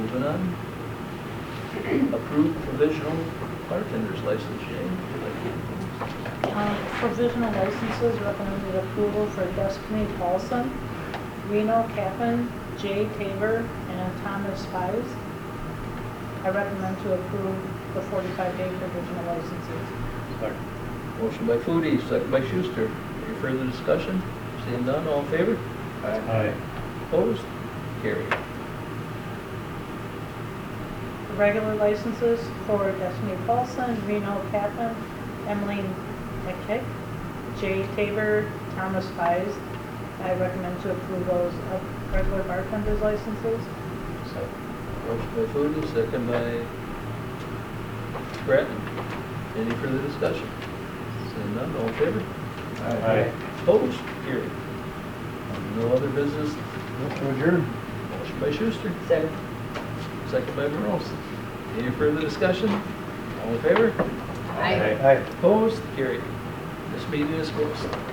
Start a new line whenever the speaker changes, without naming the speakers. Opposed or none? Approved provisional bartender's license, Jane.
Um, Provisional licenses recommended approval for Destiny Paulson, Reno Cavan, Jay Tabor, and Thomas Spies. I recommend to approve the 45-day provisional licenses.
Motion by Foodie, second by Schuster. Any further discussion? Seeing none, all in favor?
Aye.
Opposed? Carried.
The Regular licenses for Destiny Paulson, Reno Cavan, Emily McKick, Jay Tabor, Thomas Spies. I recommend to approve those uh, regular bartender's licenses.
Motion by Foodie, second by Grattan. Any further discussion? Seeing none, all in favor?
Aye.
Opposed? Carried. No other business.
Mr. Adjourn.
Motion by Schuster. Second. Second by Morose. Any further discussion? All in favor?
Aye.
Opposed? Carried. This meeting is closed.